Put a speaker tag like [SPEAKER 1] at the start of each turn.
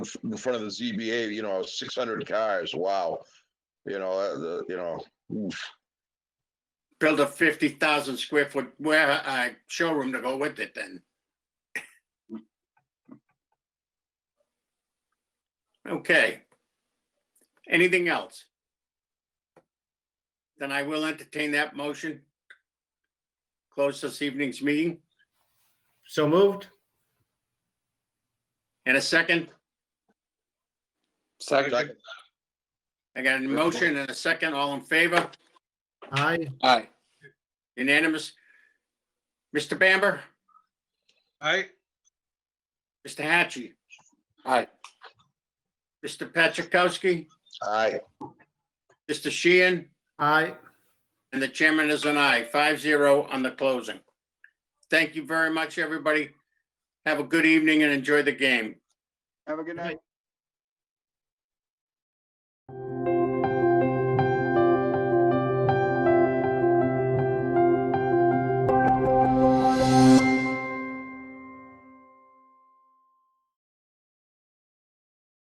[SPEAKER 1] in front of the ZBA, you know, six hundred cars, wow. You know, uh, the, you know, oof.
[SPEAKER 2] build a fifty thousand square foot ware, uh, showroom to go with it then. Okay. Anything else? Then I will entertain that motion. Close this evening's meeting
[SPEAKER 3] So moved?
[SPEAKER 2] in a second.
[SPEAKER 4] Second.
[SPEAKER 2] I got a motion and a second. All in favor?
[SPEAKER 3] Aye.
[SPEAKER 4] Aye.
[SPEAKER 2] Unanimous? Mr. Bamber?
[SPEAKER 4] Aye.
[SPEAKER 2] Mr. Hatchie,
[SPEAKER 4] Aye.
[SPEAKER 2] Mr. Patrickowski?
[SPEAKER 1] I,
[SPEAKER 2] Mr. Sheehan?
[SPEAKER 3] Aye.
[SPEAKER 2] And the chairman is an aye, five zero on the closing. Thank you very much, everybody. Have a good evening and enjoy the game.
[SPEAKER 5] Have a good night.